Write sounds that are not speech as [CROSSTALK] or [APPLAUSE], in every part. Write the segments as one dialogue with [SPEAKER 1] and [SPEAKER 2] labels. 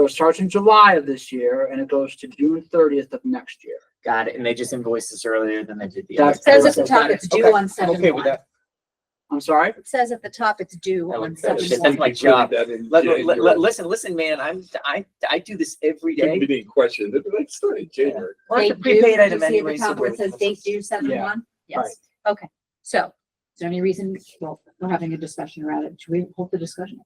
[SPEAKER 1] So it starts in July of this year and it goes to June thirtieth of next year.
[SPEAKER 2] Got it. And they just invoiced us earlier than they did the
[SPEAKER 1] That's-
[SPEAKER 2] other.
[SPEAKER 3] It says at the
[SPEAKER 1] Okay,
[SPEAKER 3] top, it's
[SPEAKER 1] okay,
[SPEAKER 3] due on
[SPEAKER 2] I'm
[SPEAKER 3] seven
[SPEAKER 2] okay with
[SPEAKER 3] one.
[SPEAKER 2] that.
[SPEAKER 1] I'm sorry?
[SPEAKER 3] It says at the top, it's due
[SPEAKER 2] I like
[SPEAKER 3] on
[SPEAKER 2] that.
[SPEAKER 3] seven
[SPEAKER 2] It's just-
[SPEAKER 3] one.
[SPEAKER 2] that's my job. Let, let- let- listen, listen, man, I'm, I, I do this every day.
[SPEAKER 4] Being questioned, it's not in January.
[SPEAKER 2] Well, it's a
[SPEAKER 3] Date due,
[SPEAKER 2] prepaid
[SPEAKER 3] you
[SPEAKER 2] item
[SPEAKER 3] see at the
[SPEAKER 2] anyway, so
[SPEAKER 3] top where it
[SPEAKER 2] we're-
[SPEAKER 3] Says date due seven
[SPEAKER 1] Yeah,
[SPEAKER 3] one, yes, okay, so, is there any reason, well, we're having a discussion around it, should we hold the discussion?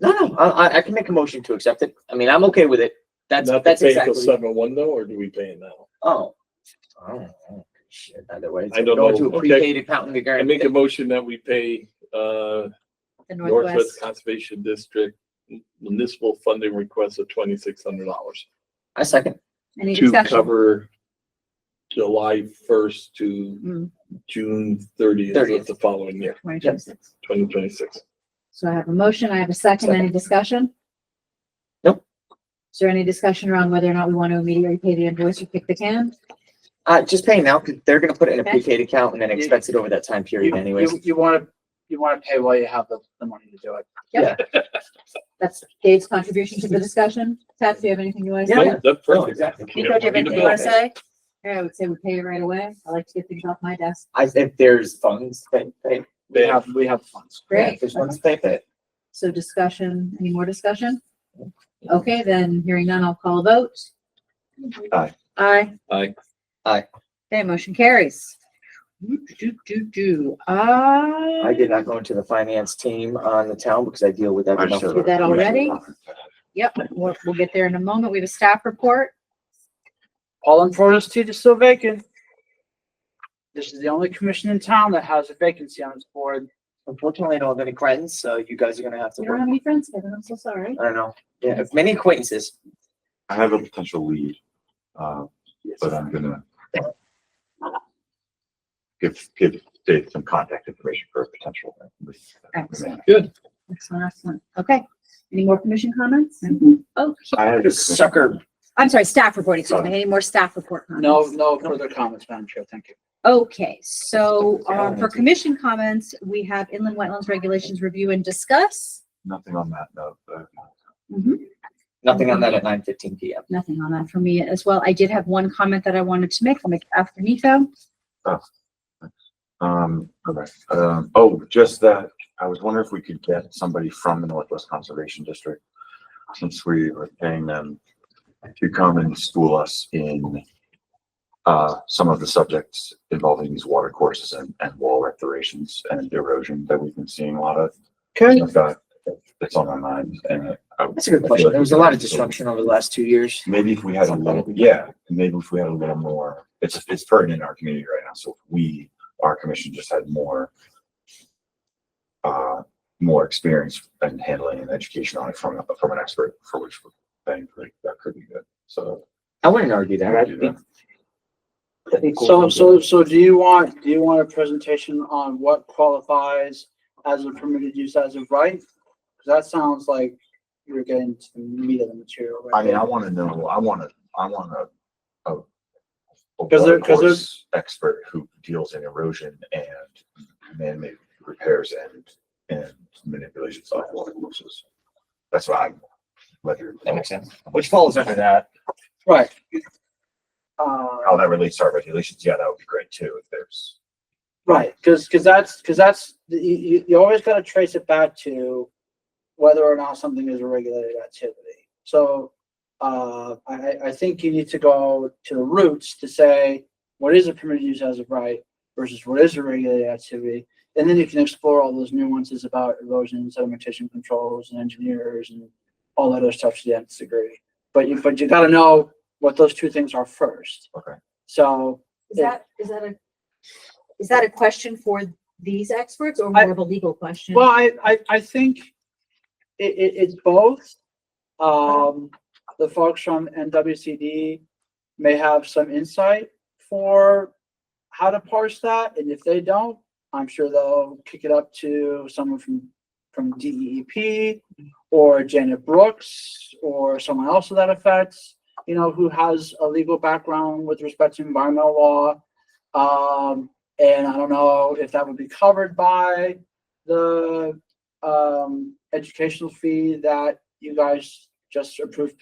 [SPEAKER 2] No, no, I, I- I can make a motion to accept it. I mean, I'm okay with it. That's,
[SPEAKER 4] Not to
[SPEAKER 2] that's
[SPEAKER 4] pay until
[SPEAKER 2] exactly.
[SPEAKER 4] seven one though, or do we pay it now?
[SPEAKER 2] Oh. I don't know. Shit, either way.
[SPEAKER 4] I don't
[SPEAKER 2] Go
[SPEAKER 4] know.
[SPEAKER 2] to a
[SPEAKER 4] Okay.
[SPEAKER 2] prepaid account in the
[SPEAKER 4] I
[SPEAKER 2] garden.
[SPEAKER 4] make a motion that we pay, uh,
[SPEAKER 3] The
[SPEAKER 4] Northwest
[SPEAKER 3] Northwest,
[SPEAKER 4] Conservation District municipal funding request of twenty-six hundred dollars
[SPEAKER 2] I second.
[SPEAKER 3] any
[SPEAKER 4] to
[SPEAKER 3] discussion?
[SPEAKER 4] cover July first to
[SPEAKER 3] Mm,
[SPEAKER 4] June thirtieth of
[SPEAKER 2] 30th.
[SPEAKER 4] the following year,
[SPEAKER 3] 2026.
[SPEAKER 4] twenty twenty-six.
[SPEAKER 3] So I have a motion, I have a second, any discussion?
[SPEAKER 2] Nope.
[SPEAKER 3] Is there any discussion around whether or not we want to immediately pay the invoice or kick the can?
[SPEAKER 2] Uh, just pay now, because they're gonna put it in a
[SPEAKER 3] Okay.
[SPEAKER 2] prepaid account and then
[SPEAKER 1] You-
[SPEAKER 2] expense it over that time period
[SPEAKER 1] You-
[SPEAKER 2] anyways.
[SPEAKER 1] You, you wanna, you wanna pay while you have the, the money to do it.
[SPEAKER 3] That's Dave's contribution to
[SPEAKER 4] [LAUGHS]
[SPEAKER 3] the discussion, Pat, do you have anything you want to
[SPEAKER 2] Yeah.
[SPEAKER 3] say?
[SPEAKER 2] Yeah.
[SPEAKER 4] That's
[SPEAKER 2] No,
[SPEAKER 4] perfect.
[SPEAKER 2] exactly.
[SPEAKER 3] Nico, do you have
[SPEAKER 4] Yeah, we need
[SPEAKER 3] anything
[SPEAKER 4] to
[SPEAKER 3] you want to
[SPEAKER 4] bill.
[SPEAKER 3] say? Yeah, I would say we pay it right away, I like to get things off my desk,
[SPEAKER 2] I think there's funds, pay, pay.
[SPEAKER 1] We
[SPEAKER 4] Yeah.
[SPEAKER 1] have, we have funds.
[SPEAKER 3] great.
[SPEAKER 2] There's
[SPEAKER 3] Okay.
[SPEAKER 2] funds, pay, pay.
[SPEAKER 3] So discussion, any more discussion? Okay, then hearing none, I'll call a vote.
[SPEAKER 2] Aye.
[SPEAKER 3] Aye.
[SPEAKER 4] Aye.
[SPEAKER 2] Aye.
[SPEAKER 3] Okay, motion carries. Do, do, do, do, ah.
[SPEAKER 2] I did not go into the finance team on the town because I deal with that.
[SPEAKER 4] I'm sure.
[SPEAKER 3] Did that already? Yep, we'll, we'll get there in a moment. We have a staff report.
[SPEAKER 1] All in Florida's seat is still vacant. This is the only commission in town that has a vacancy on its board.
[SPEAKER 2] Unfortunately, I don't have any friends, so you guys are gonna have to
[SPEAKER 3] You don't
[SPEAKER 2] work.
[SPEAKER 3] have any friends, Kevin, I'm so sorry.
[SPEAKER 2] I don't know. Yeah, many acquaintances.
[SPEAKER 5] I have a potential lead, uh, but I'm gonna uh, give, give Dave some contact information for a potential.
[SPEAKER 3] Excellent.
[SPEAKER 4] Good.
[SPEAKER 3] Excellent, excellent. Okay. Any more commission comments? Oh,
[SPEAKER 5] I have a
[SPEAKER 2] Sucker.
[SPEAKER 3] I'm sorry, staff report, excuse me. Any more staff report comments?
[SPEAKER 1] No, no further comments, Madam Chair, thank you.
[SPEAKER 3] Okay, so,
[SPEAKER 2] Yeah,
[SPEAKER 3] um, for
[SPEAKER 2] that's it.
[SPEAKER 3] commission comments, we have inland wetlands regulations review and discuss.
[SPEAKER 5] Nothing on that note, but uh,
[SPEAKER 2] Nothing on that at nine fifteen P M.
[SPEAKER 3] Nothing on that for me as well. I did have one comment that I wanted to make. I'll make it after Nico.
[SPEAKER 5] Um, okay, um, oh, just that, I was wondering if we could get somebody from the Northwest Conservation District. Since we are paying them to come and school us in uh, some of the subjects involving these water courses and, and wall rectorations and erosion that we've been seeing a lot of.
[SPEAKER 2] Okay.
[SPEAKER 5] I've got, it's on my mind and. I-
[SPEAKER 2] That's a good question. There was a lot of disruption over the last two years.
[SPEAKER 5] Maybe if we had a little, yeah, maybe if we had a little more, it's, it's pertinent in our community right now, so if we, our commission just had more uh, more experience in handling and education on it from, from an expert, for which we're paying, for it, that could be good, so.
[SPEAKER 2] I wouldn't argue that. I
[SPEAKER 5] do
[SPEAKER 2] think-
[SPEAKER 5] that.
[SPEAKER 2] I think we'll-
[SPEAKER 1] So, so, so do you want, do you want a presentation on what qualifies as a permitted use as of right? Cause that sounds like you're getting to the meat of the material. right
[SPEAKER 5] I mean,
[SPEAKER 1] there.
[SPEAKER 5] I wanna know, I wanna, I wanna, a, a. a
[SPEAKER 1] 'Cause there- 'cause there's-
[SPEAKER 5] watercourse Expert who deals in erosion and man-made repairs and, and manipulations of water courses. That's what I'm, whether,
[SPEAKER 2] That makes sense. Which falls under that.
[SPEAKER 1] Right. Uh,
[SPEAKER 5] how that relates to our regulations, yeah, that would be great too, if there's.
[SPEAKER 1] Right, because, because that's, because that's, you, you, you always gotta trace it back to whether or not something is a regulated activity. So, uh, I, I- I think you need to go to the roots to say, what is a permitted use as of right versus what is a regulated activity? And then you can explore all those nuances about erosion, sedimentation controls and engineers and all that other stuff to the nth degree. But you, but you gotta know what those two things are first.
[SPEAKER 5] Okay.
[SPEAKER 1] So,
[SPEAKER 3] Is that, is that a, is that a question for these experts or
[SPEAKER 1] I-
[SPEAKER 3] more of a legal question?
[SPEAKER 1] Well, I, I, I think it, it, it's both. Um, the folks from NWCD may have some insight for how to parse that, and if they don't, I'm sure they'll kick it up to someone from, from DEEP or Janet Brooks or someone else to that effect, you know, who has a legal background with respect to environmental law. Um, and I don't know if that would be covered by, the um educational fee that you guys just approve